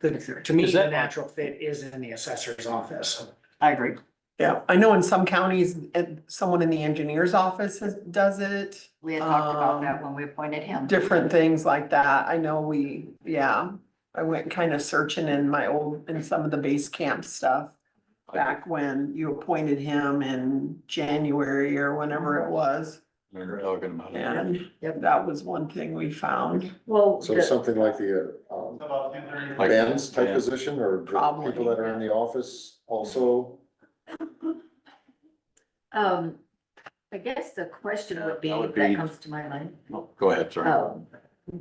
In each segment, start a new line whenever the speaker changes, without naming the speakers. the, to me,
Is
the
that-
natural fit is in the assessor's office.
I agree.
Yeah, I know in some counties, and someone in the engineer's office has- does it,
We had talked about
Um,
that when we appointed him.
different things like that. I know we, yeah. I went kind of searching in my old, in some of the base camp stuff back when you appointed him in January or whenever it was.
We were talking about it.
And
Yep.
that was one thing we found.
Well,
So
the-
something like the, uh, um,
Like-
bands type
Yeah.
position or the
Probably.
people that are in the office also?
um, I guess the question would be,
That would
that
be-
comes to my mind,
No, Go ahead, sorry.
um,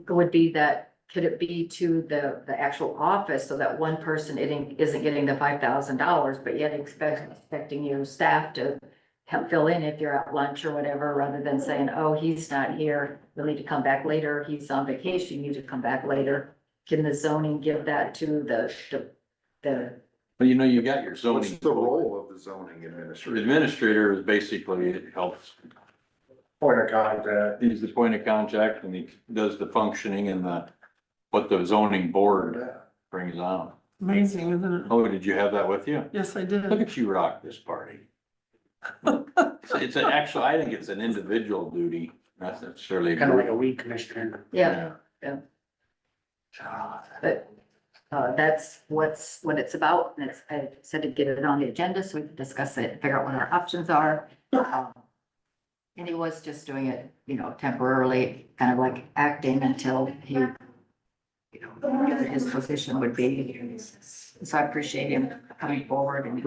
would be that, could it be to the, the actual office so that one person isn't, isn't getting the five thousand dollars, but yet expect, expecting your staff to help fill in if you're at lunch or whatever, rather than saying, oh, he's not here, we need to come back later, he's on vacation, you need to come back later. Can the zoning give that to the, the- the
But you know, you got your zoning.
What's the role of the zoning administrator?
Administrator is basically, it helps,
Point of contact.
he's the point of contact and he does the functioning and the, what the zoning board brings on.
Amazing, isn't it?
Oh, did you have that with you?
Yes, I
Look
did.
at you rock this party. It's- It's an actual, I think it's an individual duty, not necessarily.
Kind of like a weed commissioner.
Yeah, but uh, that's what's, what it's about, and it's, I said to get it on the agenda so we can discuss it, figure out what our options are. Um, And he was just doing it, you know, temporarily, kind of like acting until he, you know, whatever his position would be. So I appreciate him coming forward and.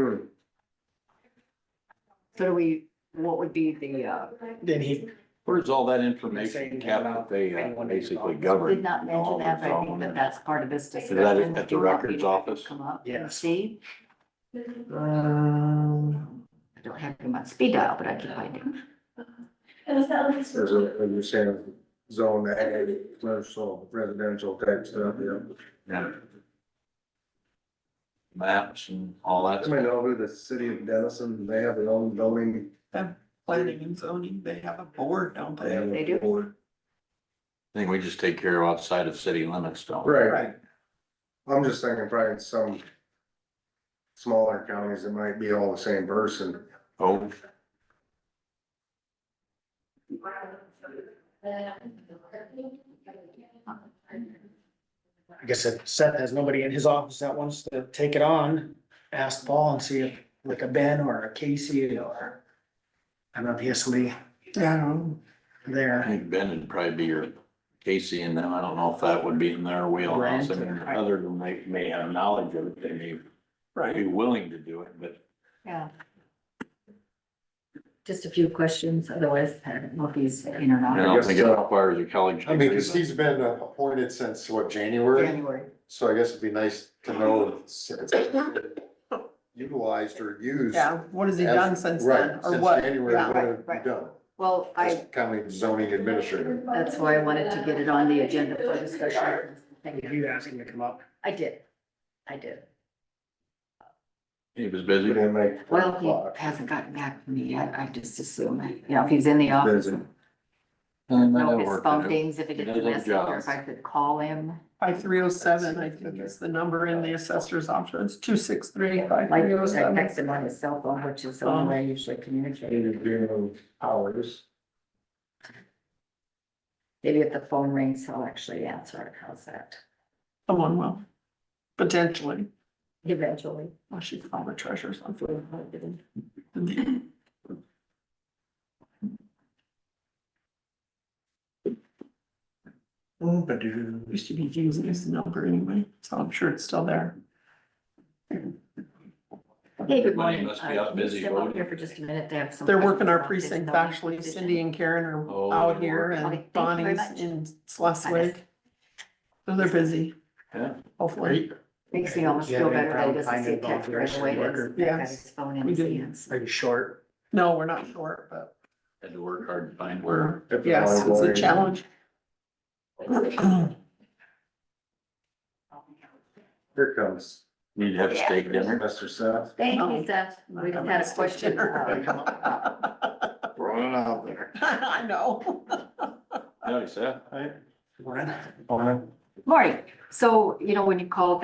So do we, what would be the, uh,
Then he,
Where's all that information kept that they uh, basically govern?
did not mention that, but I think that that's part of this
Is
discussion.
that at
Do
the
you want me
records
to
office?
Come up and
Yes.
see?
Um,
I don't have him on speed dial, but I can find him.
There's a, as you're saying, zone A, commercial, residential type stuff, yeah.
Yeah. Maps and all that.
Anybody know who the city of Denison, they have their own zoning
planning and zoning, they have a board, don't they?
They do.
I think we just take care of outside of city limits, don't we?
Right. I'm just thinking probably in some smaller counties, it might be all the same person.
Oh,
I guess if Seth has nobody in his office that wants to take it on, ask Paul and see if, like a Ben or a Casey or. I don't know if he has somebody
Yeah, I don't
I
there.
think Ben would probably be your Casey and them. I don't know if that would be in their wheelhouse. I mean,
Right.
other than they may have knowledge of it, they may
right.
be willing to do it, but
Yeah. Just a few questions, otherwise I don't know if he's in or
I
not.
don't think it
I guess, uh,
requires a college.
I mean,
degree,
because
but-
he's been appointed since what, January?
January.
So I guess it'd be nice to know it's- it's utilized or used.
Yeah, what has he
as-
done since
right,
then, or
since
what?
January,
Yeah.
what have you
right.
done?
Well,
As
I,
county zoning administrator.
that's why I wanted to get it on the agenda for discussion. Thank
If
you.
you ask him to come up,
I did. I did.
He was
We
busy.
didn't make four
Well,
o'clock.
he hasn't gotten back to me yet. I just assume, you know, if he's in the office.
Busy.
Know his phone
Well,
things, if he
He
gets
does
a
his
message, or if
job.
I could call him.
Five three oh seven, I think is the number in the assessor's office, two six three five
Like, I
three oh seven.
text him on his cell phone, which is the only way I usually communicate.
Needed doing hours.
Maybe if the phone rings, he'll actually answer it. How's that?
Someone will, potentially,
Eventually.
unless she found the treasure or something.
Well,
Used to be using this number anyway, so I'm sure it's still there.
Hey, good
Everybody
morning.
must be
Uh,
out
can you
busy
Step up
voting.
here for just a minute. They have some.
They're working our
questions
precinct,
about this
actually,
position.
Cindy and Karen
Oh,
are out
they're
here
working. Okay,
and
thank you very
Bonnie's
much.
in Sleswig. So they're busy,
Yeah.
hopefully.
Makes me almost
Do you
feel
have any
better. that I
problem
doesn't see a
finding
text right
volunteers
away.
for
That's-
worker?
that
Yes,
guy's Phone in
we
his
did.
hands.
are you short?
No, we're not short, but
Had to work hard to find where.
we're, yes, it's a challenge.
Here comes
Need to have steak dinner.
Mr. Seth.
Thank
Oh.
you, Seth. We just had a question. uh,
Running out there.
I know.
Nice, huh?
Morning.
Morning.
Marty, so, you know, when you called